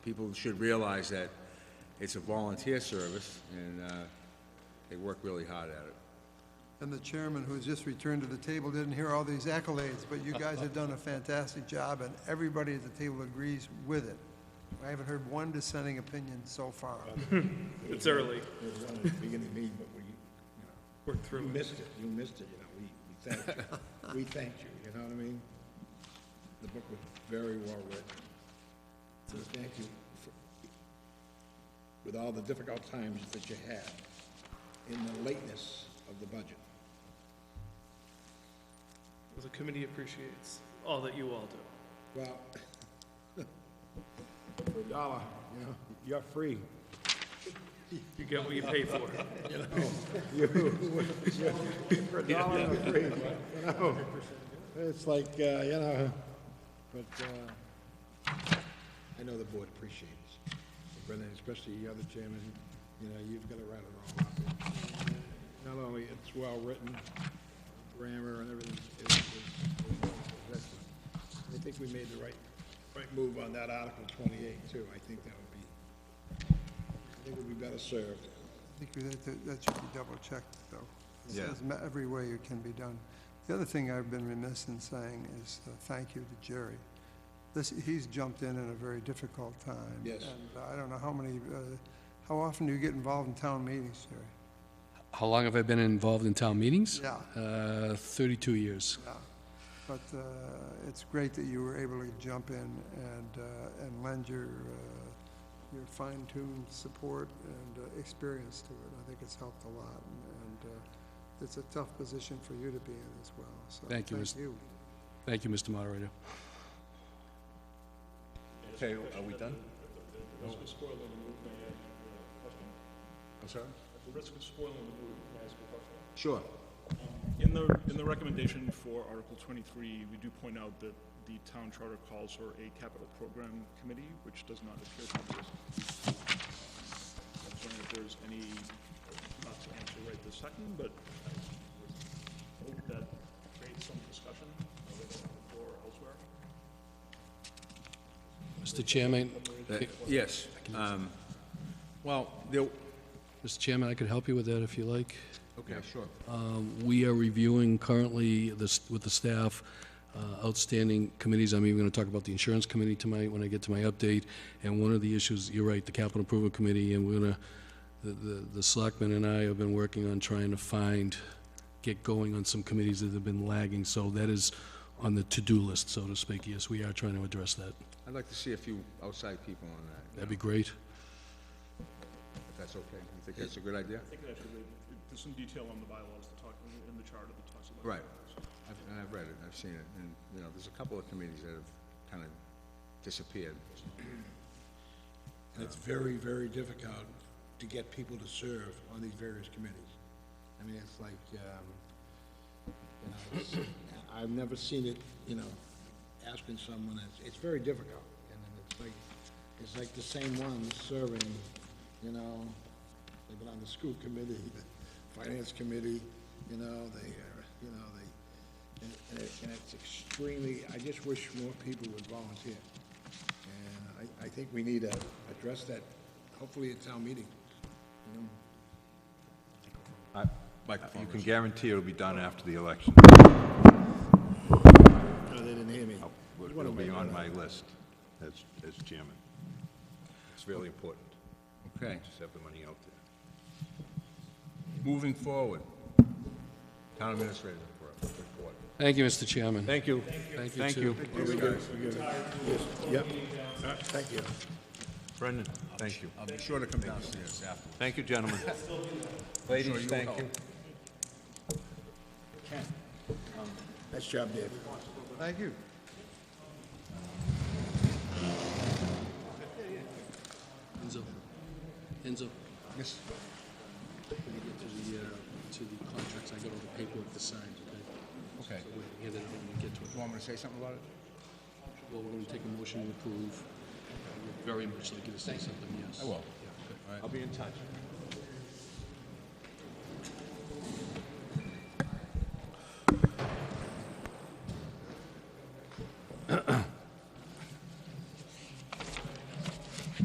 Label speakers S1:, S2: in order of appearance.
S1: people should realize that it's a volunteer service, and uh, they work really hard at it.
S2: And the chairman, who's just returned to the table, didn't hear all these accolades, but you guys have done a fantastic job, and everybody at the table agrees with it. I haven't heard one dissenting opinion so far.
S3: It's early.
S4: It was on at the beginning of the meeting, but we, you
S3: Work
S4: know, you
S3: through it.
S4: missed it, you missed it, you know, we, we thanked you. We thanked you, you know what I mean? The book was very well written. So thank you for, with all the difficult times that you had in the lateness of the budget.
S3: The committee appreciates all that you all do.
S4: Well, for a dollar, you know, you're free.
S3: You get what you pay for.
S4: For a dollar, you're free, you know? It's like, uh, you know, but, uh, I know the board appreciates, Brendan, especially the other chairman, you know, you've got to write it all up. Not only it's well-written, grammar and everything is, is, is excellent. I think we made the right, right move on that Article twenty-eight too. I think that would be, I think we'd be better served.
S2: I think that- that, that should be double-checked, though. It
S1: Yeah.
S2: says ma- every way it can be done. The other thing I've been remiss in saying is uh, thank you to Jerry. This, he's jumped in at a very difficult time.
S4: Yes.
S2: And I don't know how many, uh, how often do you get involved in town meetings, Jerry?
S5: How long have I been involved in town meetings?
S2: Yeah.
S5: Uh, 32 years.
S2: Yeah, but uh, it's great that you were able to jump in and, uh, and lend your, uh, your fine-tuned support and uh, experience to it. I think it's helped a lot, and- and uh, it's a tough position for you to be in as well, so thank
S5: Thank you,
S2: you.
S5: Mr. Thank you, Mr. Moderator.
S1: Okay, are we done? I'm sorry?
S6: The risk of spoiling the mood, may I ask a question?
S4: Sure.
S6: In the, in the recommendation for Article 23, we do point out that the town charter calls for a capital program committee, which does not appear to exist. I'm wondering if there's any, not to answer right this second, but I would hope that creates some discussion or elsewhere.
S5: Mr. Chairman,
S1: Uh, Yes. um, Well, there,
S5: Mr. Chairman, I could help you with that if you like.
S1: okay, sure.
S5: Um, We are reviewing currently this, with the staff, uh, outstanding committees. I'm even going to talk about the insurance committee tonight when I get to my update. And one of the issues, you're right, the capital improvement committee, and we're going to, the, the selectmen and I have been working on trying to find, get going on some committees that have been lagging. So that is on the to-do list, so to speak. Yes, we are trying to address that.
S1: I'd like to see a few outside people on that,
S5: That'd be great.
S1: if that's okay. You think that's a good idea?
S6: I think that actually, there's some detail on the bylaws that talk, in the charter that talks about.
S1: Right. I've, and I've read it, I've seen it, and, you know, there's a couple of committees that have kind of disappeared.
S4: It's very, very difficult to get people to serve on these various committees. I mean, it's like, um, you know, it's, I've never seen it, you know, asking someone, it's, it's very difficult. And then it's like, it's like the same ones serving, you know, they've been on the school committee, the finance committee, you know, they, are- you know, they, and- and it- and it's extremely, I just wish more people would volunteer. And I, I think we need to address that, hopefully at town meeting, you know?
S7: I- You can guarantee it'll be done after the election.
S4: No, Oh, they didn't hear me.
S7: It'll be on my list as, as chairman. It's really important,
S1: Okay,
S7: just have the money out there.
S1: moving forward. Town administrator report.
S5: Thank you, Mr. Chairman.
S7: Thank you.
S5: Thank you,
S7: Thank
S5: too.
S7: you.
S4: Yep. Thank you.
S7: Brendan, thank you.
S1: I'll be sure to come downstairs afterwards.
S7: Thank you, gentlemen. Ladies, thank you.
S4: Nice job, Dave.
S2: Thank you.
S5: Enzo. Enzo,
S1: Miss-
S5: when you get to the, uh, to the contracts, I got all the paperwork to sign, okay?
S1: Okay,
S5: So
S1: do
S5: we can hand it out when we get to it.
S1: you want me to say something about it?
S5: Well, we're gonna take a motion to approve. I would Very much like you to say something, yes.
S1: I will.
S5: Yeah, okay.
S1: I'll be in touch.